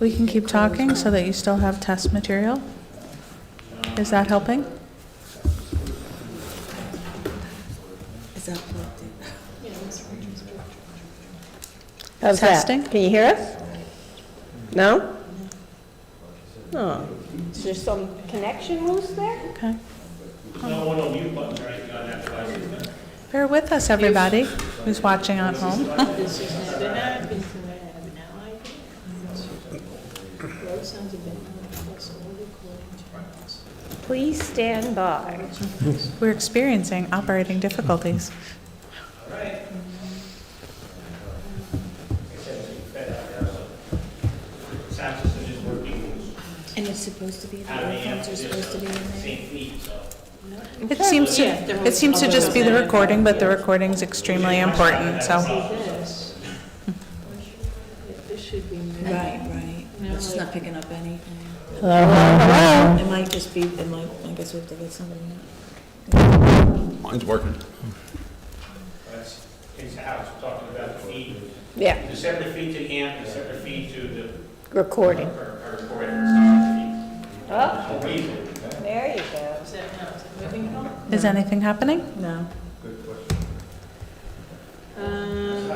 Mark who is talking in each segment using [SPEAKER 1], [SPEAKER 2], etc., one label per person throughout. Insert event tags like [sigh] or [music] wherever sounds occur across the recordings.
[SPEAKER 1] We can keep talking so that you still have test material? Is that helping?
[SPEAKER 2] Is that plugged in?
[SPEAKER 3] How's that?
[SPEAKER 1] Testing?
[SPEAKER 3] Can you hear us? No? Oh. No. Is there some connection loose there?
[SPEAKER 1] Okay. Bear with us, everybody who's watching at home.
[SPEAKER 3] Please stand by.
[SPEAKER 1] We're experiencing operating difficulties.
[SPEAKER 2] And it's supposed to be, the earphones are supposed to be in there.
[SPEAKER 1] It seems to, it seems to just be the recording, but the recording's extremely important, so.
[SPEAKER 2] Right, right. It's just not picking up anything.
[SPEAKER 3] Hello?
[SPEAKER 2] It might just be, it might, I guess we have to let somebody know.
[SPEAKER 4] Mine's working.
[SPEAKER 5] That's his house, talking about the feed,
[SPEAKER 3] Yeah,
[SPEAKER 5] the separate feed to amp, the separate feed to the,
[SPEAKER 3] recording.
[SPEAKER 5] or, or for it,
[SPEAKER 3] Oh,
[SPEAKER 5] it's a reason.
[SPEAKER 3] there you go.
[SPEAKER 1] Is anything happening?
[SPEAKER 2] No.
[SPEAKER 5] I don't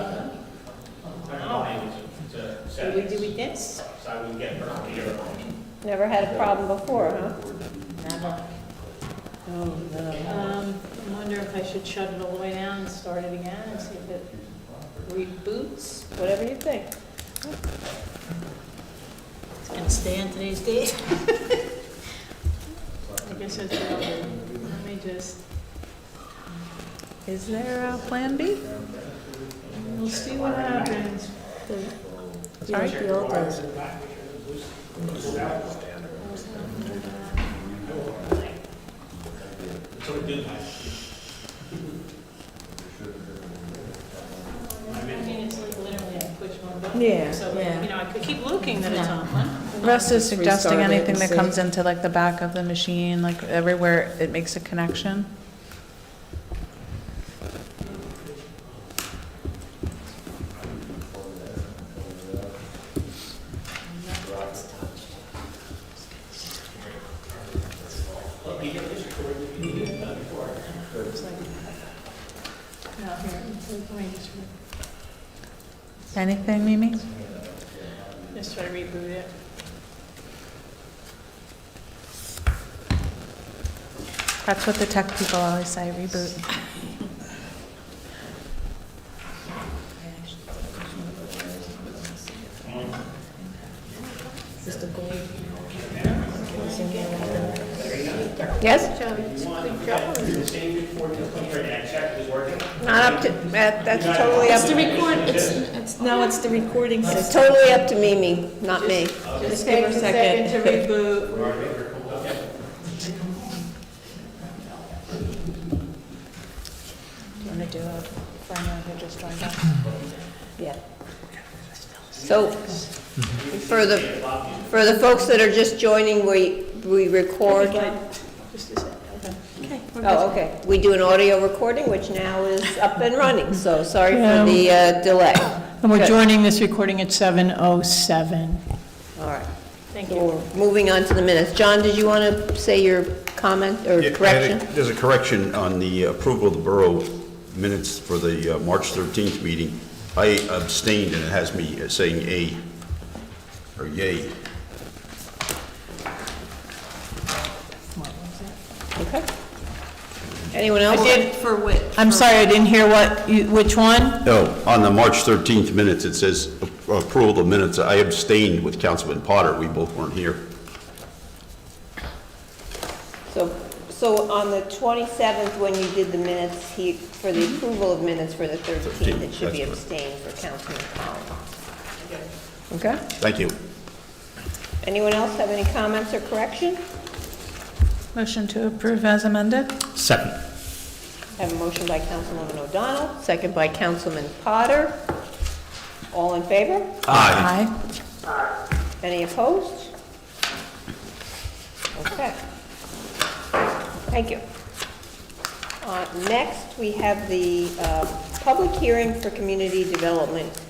[SPEAKER 5] know, maybe it's a- it's a set,
[SPEAKER 6] We do with this?
[SPEAKER 5] so I would get burned here.
[SPEAKER 3] Never had a problem before, huh?
[SPEAKER 2] Oh,
[SPEAKER 6] Um, I wonder if I should shut it all the way down and start it again and see if it reboots,
[SPEAKER 3] Whatever you think.
[SPEAKER 6] It's gonna stay on today's date. [laughs] I guess it's, probably- let me just,
[SPEAKER 1] Is there a plan B?
[SPEAKER 6] we'll see what happens.
[SPEAKER 1] Sorry?
[SPEAKER 2] The old days.
[SPEAKER 6] I mean, it's like literally I push one button.
[SPEAKER 2] Yeah,
[SPEAKER 6] So,
[SPEAKER 2] yeah.
[SPEAKER 6] you know, I could keep looking that it's on one.
[SPEAKER 1] Russ is suggesting
[SPEAKER 2] Restart it
[SPEAKER 1] anything
[SPEAKER 2] and
[SPEAKER 1] that
[SPEAKER 2] see.
[SPEAKER 1] comes into like the back of the machine, like everywhere it makes a connection.
[SPEAKER 6] No, here, let me just,
[SPEAKER 1] Anything, Mimi?
[SPEAKER 6] just try to reboot it.
[SPEAKER 1] That's what the tech people always say, reboot.
[SPEAKER 2] Is this the gold?
[SPEAKER 3] Yes?
[SPEAKER 6] Joe, it's a good job.
[SPEAKER 5] The same report you put here, and I checked, it was working.
[SPEAKER 3] Not up to, that, that's totally up
[SPEAKER 2] It's the record, it's, it's, no, it's the recording
[SPEAKER 3] It's
[SPEAKER 2] system.
[SPEAKER 3] totally up to Mimi, not me.
[SPEAKER 6] Just
[SPEAKER 2] give her a
[SPEAKER 6] take a second to
[SPEAKER 2] second.
[SPEAKER 6] reboot.
[SPEAKER 2] You wanna do a final, or just join us?
[SPEAKER 3] Yeah. So, for the, for the folks that are just joining, we, we record.
[SPEAKER 6] Just a second, okay.
[SPEAKER 2] Okay, we're good.
[SPEAKER 3] Oh, okay. We do an audio recording, which now is up and running, so sorry for the uh, delay.
[SPEAKER 7] And
[SPEAKER 3] Good.
[SPEAKER 7] we're joining this recording at 7:07.
[SPEAKER 3] All right.
[SPEAKER 6] Thank
[SPEAKER 3] So
[SPEAKER 6] you.
[SPEAKER 3] we're moving on to the minutes. John, did you want to say your comment or
[SPEAKER 4] Yeah, I had a-
[SPEAKER 3] correction?
[SPEAKER 4] There's a correction on the approval of the borough minutes for the uh, March 13th meeting. I abstained, and it has me uh, saying "a" or "yay."
[SPEAKER 3] Okay. Anyone else?
[SPEAKER 2] For which?
[SPEAKER 7] I'm sorry, I didn't hear what, you- which one?
[SPEAKER 4] No, on the March 13th minutes, it says a- approval of minutes. I abstained with Councilman Potter. We both weren't here.
[SPEAKER 3] So, so on the 27th, when you did the minutes, he, for the approval of minutes for the 13th, it should be
[SPEAKER 4] That's
[SPEAKER 3] abstained for Councilman Collins. Okay?
[SPEAKER 4] Thank you.
[SPEAKER 3] Anyone else have any comments or correction?
[SPEAKER 1] Motion to approve as amended?
[SPEAKER 8] Second.
[SPEAKER 3] Have a motion by Councilwoman O'Donnell, second by Councilman Potter. All in favor?
[SPEAKER 1] Aye.
[SPEAKER 3] Any opposed? Okay. Thank you. Uh, Next, we have the uh, public hearing for community development